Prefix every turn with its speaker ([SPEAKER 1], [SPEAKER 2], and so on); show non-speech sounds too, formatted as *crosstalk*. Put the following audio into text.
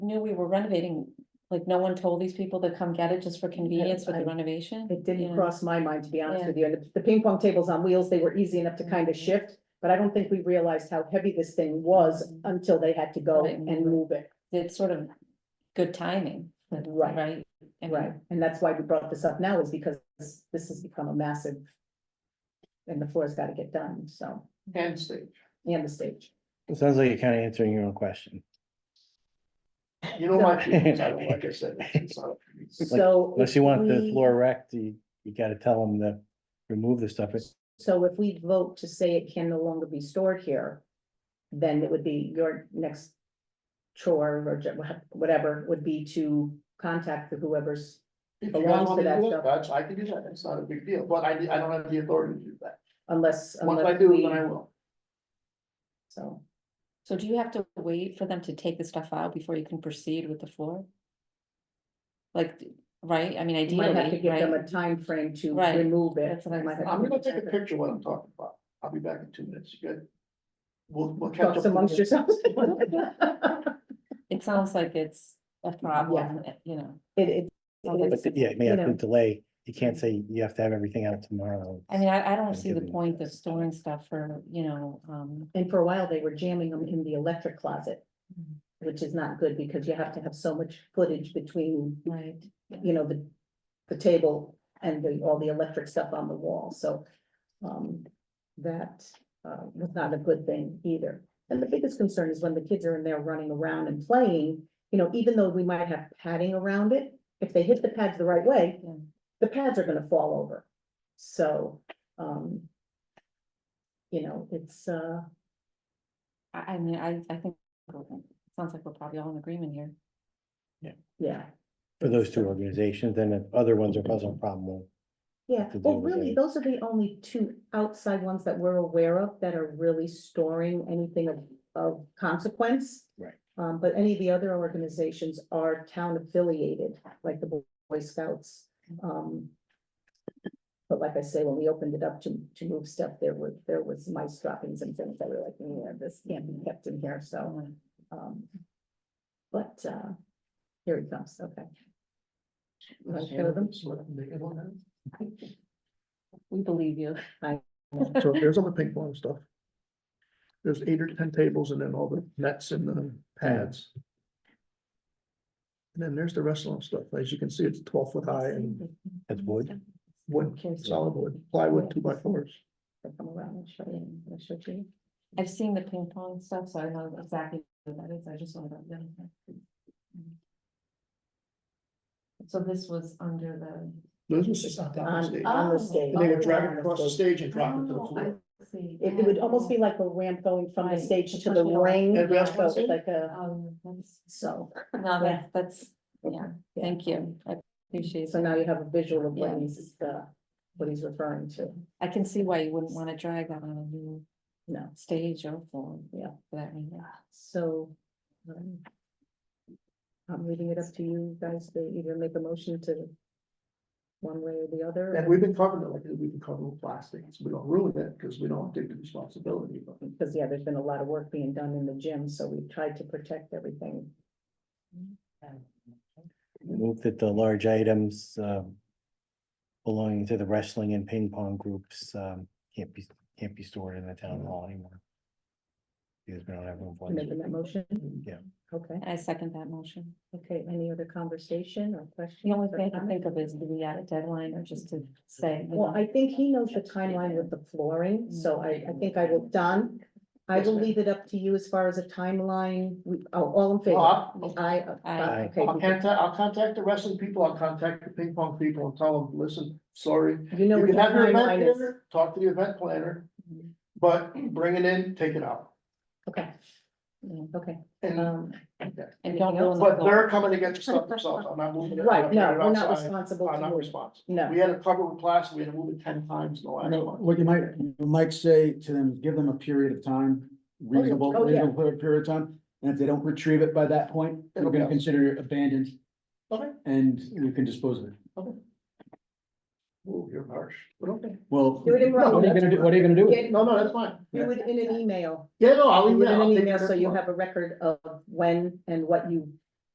[SPEAKER 1] knew we were renovating, like, no one told these people to come get it just for convenience with the
[SPEAKER 2] I-
[SPEAKER 1] renovation?
[SPEAKER 2] It
[SPEAKER 1] Yeah.
[SPEAKER 2] didn't cross my mind, to be honest with you. And the ping pong tables on wheels, they were easy enough to kind of shift. But I don't think we realized how heavy this thing was until they had to go
[SPEAKER 1] Right.
[SPEAKER 2] and move it.
[SPEAKER 1] It's sort of good timing,
[SPEAKER 2] Right.
[SPEAKER 1] right? I mean,
[SPEAKER 2] Right, and that's why we brought this up now is because this this has become a massive. And the floor's gotta get done, so,
[SPEAKER 3] And stage.
[SPEAKER 2] and the stage.
[SPEAKER 4] It sounds like you're kind of answering your own question.
[SPEAKER 3] *laughs* You know my feelings, I don't like I said. it's
[SPEAKER 4] *laughs*
[SPEAKER 3] not-
[SPEAKER 2] So.
[SPEAKER 4] Unless
[SPEAKER 2] if
[SPEAKER 4] you want the
[SPEAKER 2] we-
[SPEAKER 4] floor wrecked, you, you gotta tell them to remove the stuff. It's-
[SPEAKER 2] So if we vote to say it can no longer be stored here, then it would be your next chore or ju- whatever would be to contact the whoever's.
[SPEAKER 3] If you
[SPEAKER 2] Belongs
[SPEAKER 3] guys
[SPEAKER 2] to
[SPEAKER 3] want me to
[SPEAKER 2] that
[SPEAKER 3] do
[SPEAKER 2] stuff.
[SPEAKER 3] it, that's, I can do that, it's not a big deal, but I, I don't have the authority to do that.
[SPEAKER 2] Unless,
[SPEAKER 3] Once I
[SPEAKER 2] unless
[SPEAKER 3] do,
[SPEAKER 2] we,
[SPEAKER 3] then I will.
[SPEAKER 2] so,
[SPEAKER 1] So do you have to wait for them to take the stuff out before you can proceed with the floor? Like, right, I mean
[SPEAKER 2] you might have to
[SPEAKER 1] ideally,
[SPEAKER 2] give them a
[SPEAKER 1] right?
[SPEAKER 2] time frame to
[SPEAKER 1] Right.
[SPEAKER 2] remove it.
[SPEAKER 1] That's what I'm
[SPEAKER 2] Might have to
[SPEAKER 3] I'm gonna
[SPEAKER 2] remove
[SPEAKER 3] take a
[SPEAKER 2] it.
[SPEAKER 3] picture of what I'm talking about, I'll be back in two minutes, you good? We'll, we'll catch up.
[SPEAKER 2] Talks amongst
[SPEAKER 3] *laughs*
[SPEAKER 2] yourselves. *laughs*
[SPEAKER 1] It sounds like it's a problem, eh, you know,
[SPEAKER 2] It, it.
[SPEAKER 1] Sounds like
[SPEAKER 2] it
[SPEAKER 4] But
[SPEAKER 2] is-
[SPEAKER 4] yeah, it may
[SPEAKER 2] You
[SPEAKER 4] have to
[SPEAKER 2] know.
[SPEAKER 4] delay. You can't say you have to have everything out tomorrow.
[SPEAKER 1] I mean, I, I don't see the
[SPEAKER 4] Given-
[SPEAKER 1] point of storing stuff for, you know, um.
[SPEAKER 2] And for a while, they were jamming them in the electric closet, which is not good because you have to have so much footage between
[SPEAKER 1] Right.
[SPEAKER 2] you know, the, the table and the, all the electric stuff on the wall, so. Um, that, uh, was not a good thing either. And the biggest concern is when the kids are in there running around and playing, you know, even though we might have padding around it, if they hit the pads the right way,
[SPEAKER 1] Yeah.
[SPEAKER 2] the pads are gonna fall over. So, um. You know, it's, uh,
[SPEAKER 1] I, I mean, I, I think, it sounds like we're probably all in agreement here.
[SPEAKER 2] yeah.
[SPEAKER 4] For those two organizations, then if other ones are causing a problem, we'll
[SPEAKER 2] Yeah,
[SPEAKER 4] to
[SPEAKER 2] well,
[SPEAKER 4] deal with
[SPEAKER 2] really,
[SPEAKER 4] it.
[SPEAKER 2] those are the only two outside ones that we're aware of that are really storing anything of, of consequence.
[SPEAKER 4] Right.
[SPEAKER 2] Um, but any of the other organizations are town affiliated, like the Boy Scouts. Um. But like I say, when we opened it up to, to move stuff, there were, there was mice droppings and things that were like, yeah, this can't be kept in here, so,
[SPEAKER 1] Um,
[SPEAKER 2] um. But, uh, here it comes, okay.
[SPEAKER 3] Let's handle this, let them make it on that.
[SPEAKER 1] We believe you.
[SPEAKER 3] So here's all the ping pong stuff. There's eight or ten tables and then all the nets and the pads. And then there's the restaurant stuff. As you can see, it's twelve foot high and
[SPEAKER 4] That's wood.
[SPEAKER 3] wood, solid wood, plywood, two by fours.
[SPEAKER 2] I'll Come around and show you, I'll show it to you.
[SPEAKER 1] I've seen the ping pong stuff, so I know exactly what that is, I just wanted to. So this was under the.
[SPEAKER 3] Those are just not down the
[SPEAKER 1] Oh,
[SPEAKER 2] On the stage.
[SPEAKER 3] stage. And they would drag it across the stage and drop it to the
[SPEAKER 1] Oh, I
[SPEAKER 3] floor.
[SPEAKER 1] see.
[SPEAKER 2] It it would almost be like a ramp going from the
[SPEAKER 1] Right.
[SPEAKER 2] stage to
[SPEAKER 1] Push
[SPEAKER 2] the
[SPEAKER 1] it over.
[SPEAKER 2] ring,
[SPEAKER 3] And that's
[SPEAKER 2] so it's
[SPEAKER 3] what-
[SPEAKER 2] like a,
[SPEAKER 1] Um, that's-
[SPEAKER 2] so,
[SPEAKER 1] No, that's, that's, yeah, thank you, I appreciate
[SPEAKER 2] so
[SPEAKER 1] it,
[SPEAKER 2] now you have a visual of
[SPEAKER 1] Yeah.
[SPEAKER 2] what he's, uh, what he's referring to.
[SPEAKER 1] I can see why you wouldn't wanna drag that on a new
[SPEAKER 2] No,
[SPEAKER 1] stage or form.
[SPEAKER 2] Yeah.
[SPEAKER 1] For that reason.
[SPEAKER 2] so. um, I'm leaving it up to you guys to either make a motion to one way or the other.
[SPEAKER 3] And we've been covering it like, we've been covering with plastics. We don't ruin it because we don't take the responsibility, but
[SPEAKER 2] Because, yeah, there's been a lot of work being done in the gym, so we've tried to protect everything.
[SPEAKER 4] Move that the large items, um. Belonging to the wrestling and ping pong groups, um, can't be, can't be stored in the town hall anymore. Because we don't have room for
[SPEAKER 2] You Making
[SPEAKER 4] them.
[SPEAKER 2] that motion?
[SPEAKER 4] Yeah.
[SPEAKER 2] Okay,
[SPEAKER 1] I second that motion.
[SPEAKER 2] okay, any other conversation or questions?
[SPEAKER 1] The only
[SPEAKER 2] or
[SPEAKER 1] thing I can
[SPEAKER 2] comments?
[SPEAKER 1] think of is, do we add a deadline or just to say? you
[SPEAKER 2] Well,
[SPEAKER 1] know,
[SPEAKER 2] I think he knows the timeline with the flooring, so I, I think I will, Don, I
[SPEAKER 3] Yes,
[SPEAKER 2] will
[SPEAKER 3] ma'am.
[SPEAKER 2] leave it up to you as far as a timeline, we, oh, all in favor?
[SPEAKER 3] I'll
[SPEAKER 2] I,
[SPEAKER 1] Aye.
[SPEAKER 2] okay,
[SPEAKER 3] I'll contact, I'll contact the wrestling people. I'll contact the ping pong people and tell them, listen, sorry,
[SPEAKER 2] you know
[SPEAKER 3] You
[SPEAKER 2] what the
[SPEAKER 3] can have your event
[SPEAKER 2] timeline is,
[SPEAKER 3] planner, talk to the event planner,
[SPEAKER 1] Mhm.
[SPEAKER 3] but bring it in, take it out.
[SPEAKER 2] okay,
[SPEAKER 1] yeah.
[SPEAKER 2] okay,
[SPEAKER 3] And,
[SPEAKER 2] um,
[SPEAKER 1] And don't
[SPEAKER 2] Anything
[SPEAKER 1] ruin uh, the
[SPEAKER 3] but
[SPEAKER 1] floor.
[SPEAKER 3] they're coming to get the stuff themselves, I'm not moving it. I'm not
[SPEAKER 2] right, no,
[SPEAKER 3] putting it
[SPEAKER 2] we're not
[SPEAKER 3] outside.
[SPEAKER 2] responsible
[SPEAKER 3] I'm not
[SPEAKER 2] to,
[SPEAKER 3] responsible.
[SPEAKER 2] no,
[SPEAKER 3] We had a cover with plastic, we had to move it ten times in the last
[SPEAKER 5] No,
[SPEAKER 3] month.
[SPEAKER 5] What you might, you might say to them, give them a period of time, reasonable,
[SPEAKER 2] Oh, yeah.
[SPEAKER 5] reasonable period of time. And if they don't retrieve it by that point, we're
[SPEAKER 3] It'll be
[SPEAKER 5] gonna
[SPEAKER 3] ours.
[SPEAKER 5] consider it abandoned
[SPEAKER 3] Okay.
[SPEAKER 5] and you can dispose of it.
[SPEAKER 3] Ooh, you're harsh, but okay.
[SPEAKER 5] Well,
[SPEAKER 2] Do it in
[SPEAKER 5] what are you
[SPEAKER 2] writing.
[SPEAKER 5] gonna do, what are you gonna do? with it?
[SPEAKER 3] No, no, that's fine.
[SPEAKER 2] you would in an email,
[SPEAKER 3] Yeah, no, I'll
[SPEAKER 2] you
[SPEAKER 3] leave
[SPEAKER 2] would
[SPEAKER 3] it.
[SPEAKER 2] in
[SPEAKER 3] I'll
[SPEAKER 2] an
[SPEAKER 3] take
[SPEAKER 2] email,
[SPEAKER 3] care
[SPEAKER 2] so
[SPEAKER 3] of
[SPEAKER 2] you
[SPEAKER 3] it.
[SPEAKER 2] have a record of when and what you